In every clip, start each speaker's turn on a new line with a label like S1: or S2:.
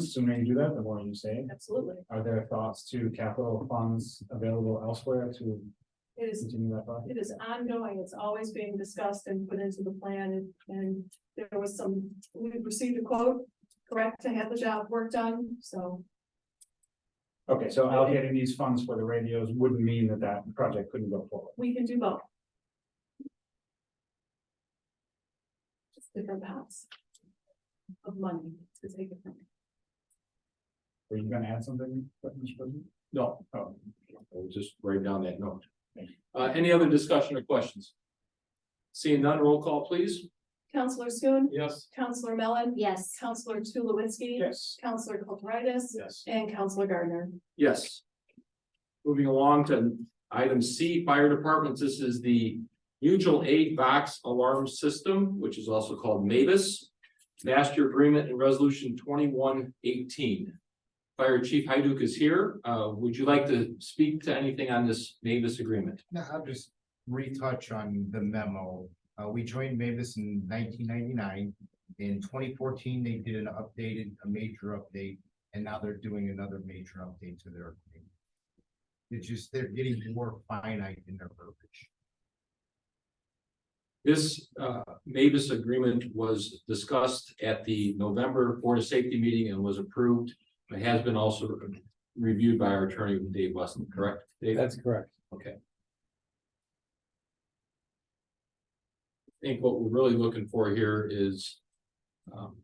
S1: Sooner you do that, the more you save.
S2: Absolutely.
S1: Are there thoughts to capital funds available elsewhere to
S2: It is,
S1: continue that project?
S2: it is ongoing. It's always being discussed and put into the plan and, and there was some, we received a quote, correct, to have the job work done, so.
S1: Okay, so allocating these funds for the radios wouldn't mean that that project couldn't go forward.
S2: We can do both. Just different paths of money to take it from.
S1: Were you gonna add something? Mr. President?
S3: No,
S1: Oh,
S3: I'll just write down that note.
S1: Thank you.
S3: Uh, any other discussion or questions? Seeing none, roll call please.
S2: Counselor Schoen,
S3: Yes.
S2: Counselor Mellon,
S4: Yes.
S2: Counselor Tulowitzki,
S1: yes.
S2: Counselor Kulturitis,
S3: Yes.
S2: and Counselor Gardner.
S3: Yes. Moving along to item C, fire departments. This is the mutual aid box alarm system, which is also called Mavis. Master agreement and resolution twenty-one eighteen. Fire Chief Hyduk is here. Uh, would you like to speak to anything on this Mavis agreement?
S5: No, I'll just retouch on the memo. Uh, we joined Mavis in nineteen ninety-nine. In twenty fourteen, they did an updated, a major update, and now they're doing another major update to their. agreement. It's just, they're getting more finite in their verbiage.
S3: This uh Mavis agreement was discussed at the November Board of Safety meeting and was approved. It has been also reviewed by our attorney Dave Weston, correct? That's correct. Okay. I think what we're really looking for here is um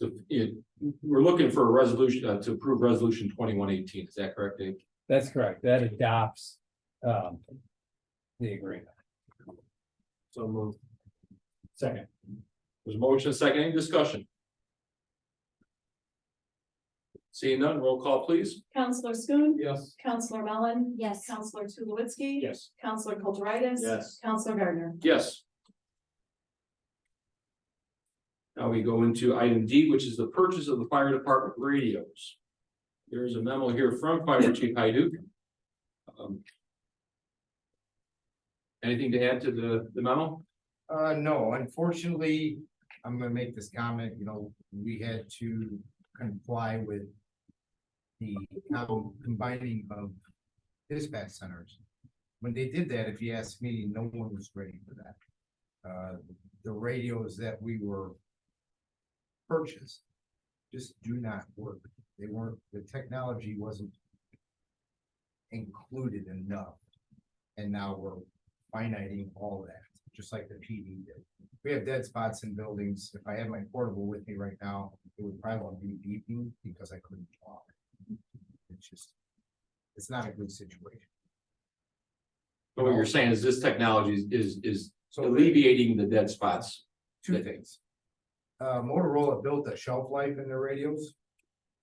S3: the, it, we're looking for a resolution uh, to approve resolution twenty-one eighteen, is that correct, Dave?
S6: That's correct. That adopts um the agreement.
S3: So moved.
S1: Second,
S3: There's a motion, a second, any discussion? Seeing none, roll call please.
S2: Counselor Schoen,
S3: Yes.
S2: Counselor Mellon,
S4: Yes.
S2: Counselor Tulowitzki.
S1: yes.
S2: Counselor Kulturitis.
S3: Yes.
S2: Counselor Gardner.
S3: Yes. Now we go into item D, which is the purchase of the fire department radios. There is a memo here from Fire Chief Hyduk. Um, Anything to add to the, the memo?
S5: Uh, no, unfortunately, I'm gonna make this comment, you know, we had to comply with the um, combining of dispatch centers. When they did that, if you ask me, no one was ready for that. Uh, the radios that we were purchased just do not work. They weren't, the technology wasn't included enough. And now we're finiting all that, just like the PD did. We have dead spots in buildings. If I had my portable with me right now, it would probably be beeping because I couldn't talk. It's just, it's not a good situation.
S3: So What you're saying is this technology is- is, is
S5: So
S3: alleviating the dead spots.
S5: two things. Uh, Motorola built a shelf life in their radios.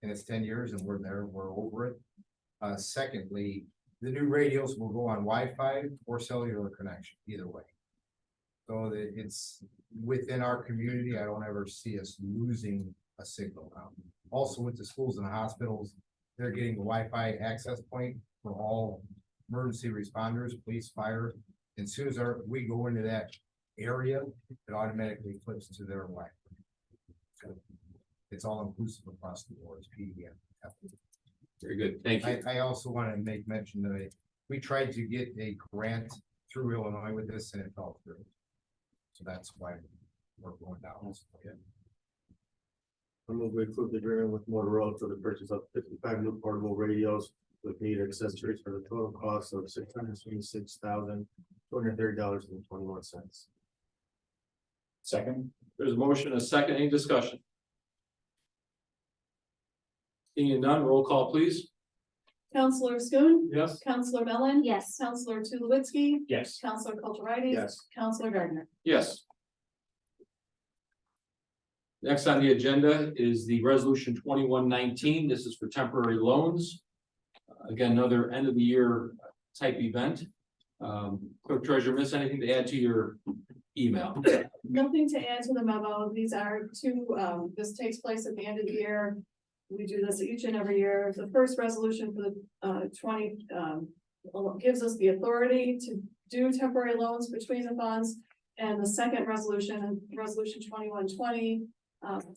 S5: And it's ten years and we're there, we're over it. Uh, secondly, the new radios will go on Wi-Fi or cellular connection, either way. So that it's within our community, I don't ever see us losing a signal now. Also with the schools and hospitals, they're getting a Wi-Fi access point for all emergency responders, police, fire. And soon as our, we go into that area, it automatically flips to their Wi-Fi. So It's all inclusive across the board, it's PDM.
S3: Very good, thank you.
S5: I, I also want to make mention that I- we tried to get a grant through Illinois with this and it fell through. So that's why we're going down.
S7: I move we approve the agreement with Motorola for the purchase of fifty-five new portable radios with meter accessories for the total cost of six hundred twenty-six thousand, two hundred thirty dollars and twenty-one cents.
S1: Second,
S3: There's a motion, a second, any discussion? Seeing none, roll call please.
S2: Counselor Schoen,
S3: Yes.
S2: Counselor Mellon.
S4: Yes.
S2: Counselor Tulowitzki,
S1: yes.
S2: Counselor Kulturitis.
S7: Yes.
S2: Counselor Gardner.
S3: Yes. Next on the agenda is the resolution twenty-one nineteen, this is for temporary loans. Uh, Again, another end of the year type event. Um, clerk treasurer, miss anything to add to your email?
S2: Nothing to add to the memo. These are two, um, this takes place at the end of the year. We do this each and every year. The first resolution for the, uh, twenty, um, gives us the authority to do temporary loans between the funds. And the second resolution, resolution twenty-one twenty, um,